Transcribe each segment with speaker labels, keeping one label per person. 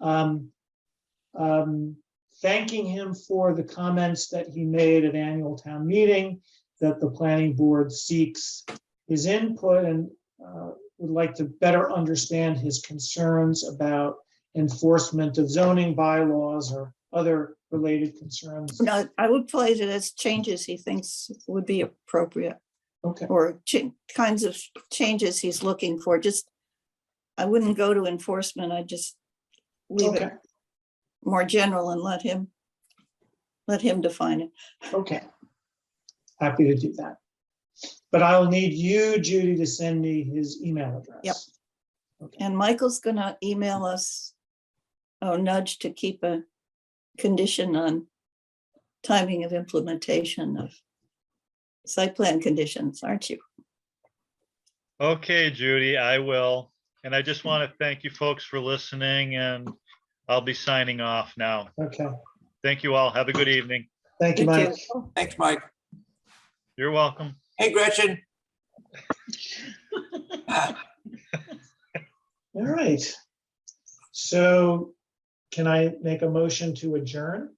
Speaker 1: um, um, thanking him for the comments that he made at annual town meeting, that the planning board seeks his input and uh, would like to better understand his concerns about enforcement of zoning bylaws or other related concerns.
Speaker 2: No, I would place it as changes he thinks would be appropriate
Speaker 1: Okay,
Speaker 2: or cha- kinds of changes he's looking for, just. I wouldn't go to enforcement, I just leave
Speaker 1: okay,
Speaker 2: it more general and let him. Let him define it.
Speaker 1: okay. Happy to do that. But I'll need you, Judy, to send me his email address.
Speaker 2: Yep. And Michael's gonna email us. a nudge to keep a condition on timing of implementation of. Site plan conditions, aren't you?
Speaker 3: Okay, Judy, I will. And I just want to thank you folks for listening and I'll be signing off now.
Speaker 1: Okay,
Speaker 3: Thank you all. Have a good evening.
Speaker 1: thank you,
Speaker 2: Thank
Speaker 1: Mike.
Speaker 2: you.
Speaker 4: Thanks, Mike.
Speaker 3: You're welcome.
Speaker 4: Hey, Gretchen. Uh,
Speaker 1: All right. So can I make a motion to adjourn?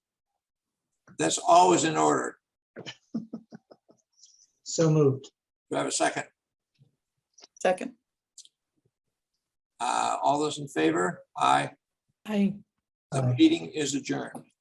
Speaker 4: That's always in order.
Speaker 1: So moved.
Speaker 4: Do I have a second?
Speaker 2: Second,
Speaker 4: Uh, All those in favor? Aye.
Speaker 5: I
Speaker 4: The
Speaker 1: Aye.
Speaker 4: meeting is adjourned.